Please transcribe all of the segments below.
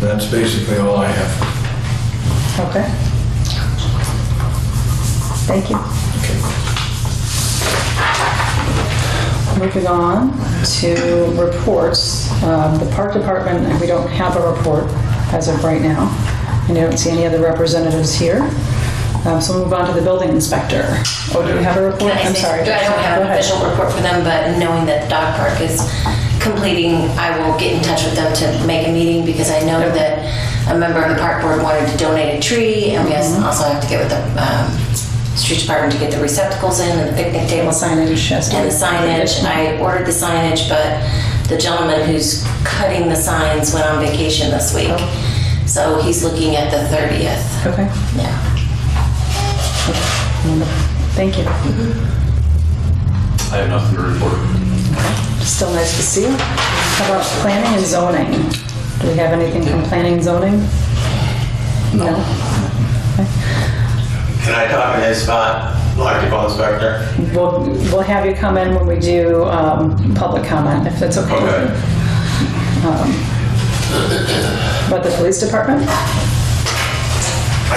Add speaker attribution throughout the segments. Speaker 1: That's basically all I have.
Speaker 2: Okay. Thank you. Moving on to reports. Um, The Park Department, we don't have a report as of right now, and I don't see any other representatives here. Um, So we'll move on to the building inspector. Oh, do we have a report?
Speaker 3: Can I
Speaker 2: I'm
Speaker 3: say-
Speaker 2: sorry.
Speaker 3: I don't have
Speaker 2: Go
Speaker 3: an
Speaker 2: ahead.
Speaker 3: official report for them, but knowing that the dog park is completing, I will get in touch with them to make a meeting because I know that a member of the park board wanted to donate a tree and we also also have to get with the um, street department to get the receptacles in and the picnic table
Speaker 2: The signage has to
Speaker 3: and
Speaker 2: be-
Speaker 3: the signage. I ordered the signage, but the gentleman who's cutting the signs went on vacation this week. So he's looking at the 30th.
Speaker 2: Okay,
Speaker 3: Yeah.
Speaker 2: thank you.
Speaker 4: I have nothing to report.
Speaker 2: Still nice to see you. How about planning and zoning? Do we have anything from planning and zoning? No.
Speaker 5: Can I talk in his spot, electrical inspector?
Speaker 2: We'll, we'll have you come in when we do um, public comment, if that's okay. with you.
Speaker 5: Okay.
Speaker 2: About the police department?
Speaker 6: I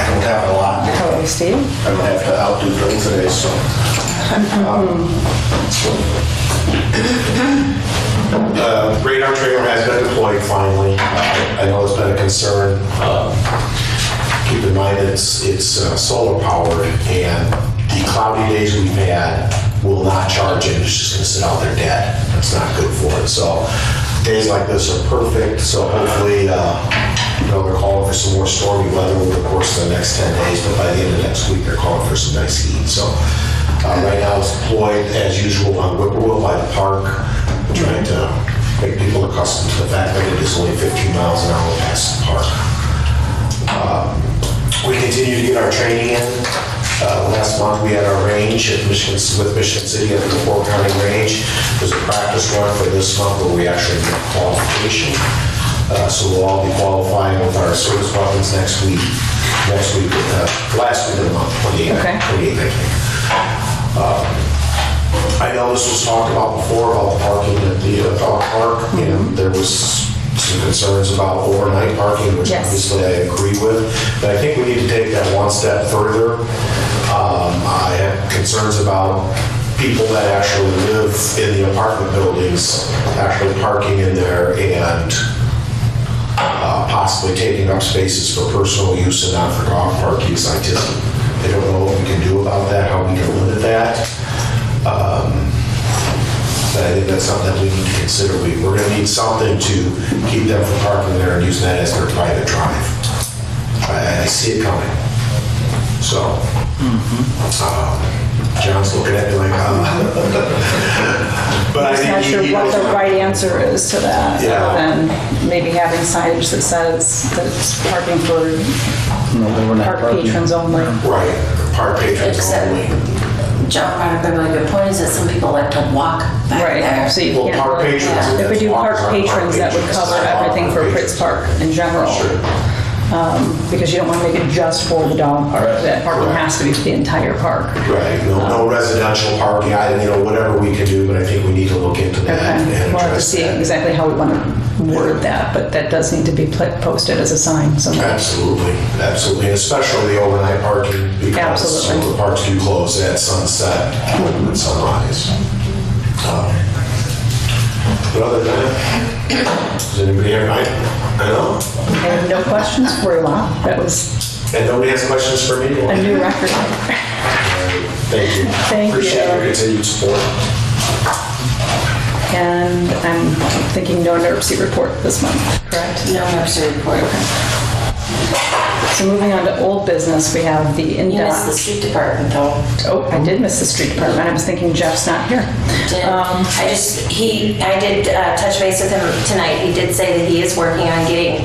Speaker 6: don't have a lot.
Speaker 2: How about you, Steve?
Speaker 6: I'm gonna have to outdo Bill today, so. um, uh, Radar trailer has been deployed finally. Uh, I know it's been a concern. Uh, Keep in mind, it's, it's uh, solar powered and the cloudy days we've had will not charge it. It's just gonna sit out there dead. That's not good for it. So days like this are perfect, so hopefully, uh, you know, they're calling for some more stormy weather over the course of the next 10 days, but by the end of next week, they're calling for some nice heat. So uh, right now, it's deployed as usual on Whippoorwill by the park, trying to make people accustomed to the fact that it is only 15 miles an hour past the park. We continue to get our training in. Uh, Last month, we had our range at Michigan, with Michigan City at the Fort County Range. There's a practice run for this month where we actually get qualification. Uh, So we'll all be qualifying with our service weapons next week, next week, uh, last week of the month, 28th,
Speaker 2: Okay.
Speaker 6: 28th, I think. I know this was talked about before about the parking at the uh, dog park, and there was some concerns about overnight parking, which
Speaker 2: Yes.
Speaker 6: obviously I agree with. But I think we need to take that one step further. Um, I have concerns about people that actually live in the apartment buildings, actually parking in there and uh, possibly taking up spaces for personal use and not for dog park use. I just, I don't know what we can do about that, how we can limit that. But Um, I think that's something that we need to consider. We, we're gonna need something to keep them from parking there and using that as their private drive. I, I see it coming. So, um, John's looking at me like, uh. But I
Speaker 2: Just
Speaker 6: think
Speaker 2: not
Speaker 6: he-
Speaker 2: sure
Speaker 6: he
Speaker 2: what
Speaker 6: knows
Speaker 2: the
Speaker 6: my-
Speaker 2: right answer is to that,
Speaker 6: Yeah.
Speaker 2: other than maybe having signage that says that it's parking for park patrons only.
Speaker 6: Right, park patrons
Speaker 3: Except-
Speaker 6: only.
Speaker 3: John brought up a really good point, is that some people like to walk back there.
Speaker 2: Right, so you
Speaker 6: Well,
Speaker 2: can't.
Speaker 6: park
Speaker 2: really-
Speaker 6: patrons,
Speaker 2: If we
Speaker 6: that's
Speaker 2: do park
Speaker 6: walkers, aren't park
Speaker 2: patrons, that would
Speaker 6: patrons.
Speaker 2: cover
Speaker 6: That's not
Speaker 2: everything for
Speaker 6: park
Speaker 2: Pritz
Speaker 6: patrons.
Speaker 2: Park in general.
Speaker 6: Sure.
Speaker 2: Because you don't want to make it just for the dog park. That parking
Speaker 6: Correct.
Speaker 2: has to be for the entire park.
Speaker 6: Right, no, no residential parking, I, you know, whatever we can do, but I think we need to look into that and
Speaker 2: Okay,
Speaker 6: address that.
Speaker 2: we'll have to see exactly how we want to word that, but that does need to be pla- posted as a sign somewhere.
Speaker 6: Absolutely, absolutely, and especially the overnight parking because some of
Speaker 2: Absolutely.
Speaker 6: the parks do close at sunset and sunrise. Um, But other than that, does anybody have, I, I know,
Speaker 2: And no questions for you, Lon. That was
Speaker 6: and nobody has questions for me?
Speaker 2: a
Speaker 6: Well,
Speaker 2: new record.
Speaker 6: Thank you.
Speaker 2: Thank you.
Speaker 6: Appreciate your continued support.
Speaker 2: And I'm thinking no NERC report this month, correct?
Speaker 3: No nursery report.
Speaker 2: So moving on to old business, we have the
Speaker 3: You missed the
Speaker 2: in-depth.
Speaker 3: street department though.
Speaker 2: Oh, I did miss the street department. I was thinking Jeff's not here.
Speaker 3: Did-
Speaker 2: Um,
Speaker 3: I just, he, I did uh, touch base with him tonight. He did say that he is working on getting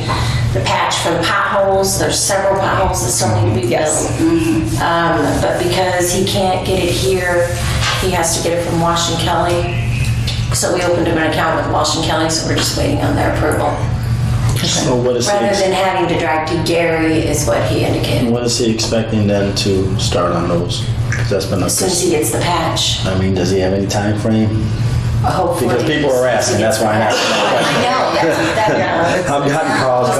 Speaker 3: the patch for the potholes. There's several potholes that still need to be
Speaker 2: Yes.
Speaker 3: filled. Um, But because he can't get it here, he has to get it from Wash and Kelly. So we opened up an account with Wash and Kelly, so we're just waiting on their approval.
Speaker 7: So what is Mm-hmm.
Speaker 3: Rather
Speaker 7: he,
Speaker 3: than having to drag to Gary is what he indicated,
Speaker 7: what is he expecting then to start on those? 'Cause that's been a.
Speaker 3: since he gets the patch.
Speaker 7: I mean, does he have any time frame?
Speaker 3: Hopefully.
Speaker 7: Because people are asking, that's why I asked that
Speaker 3: I know, that's, that,
Speaker 7: I've gotten calls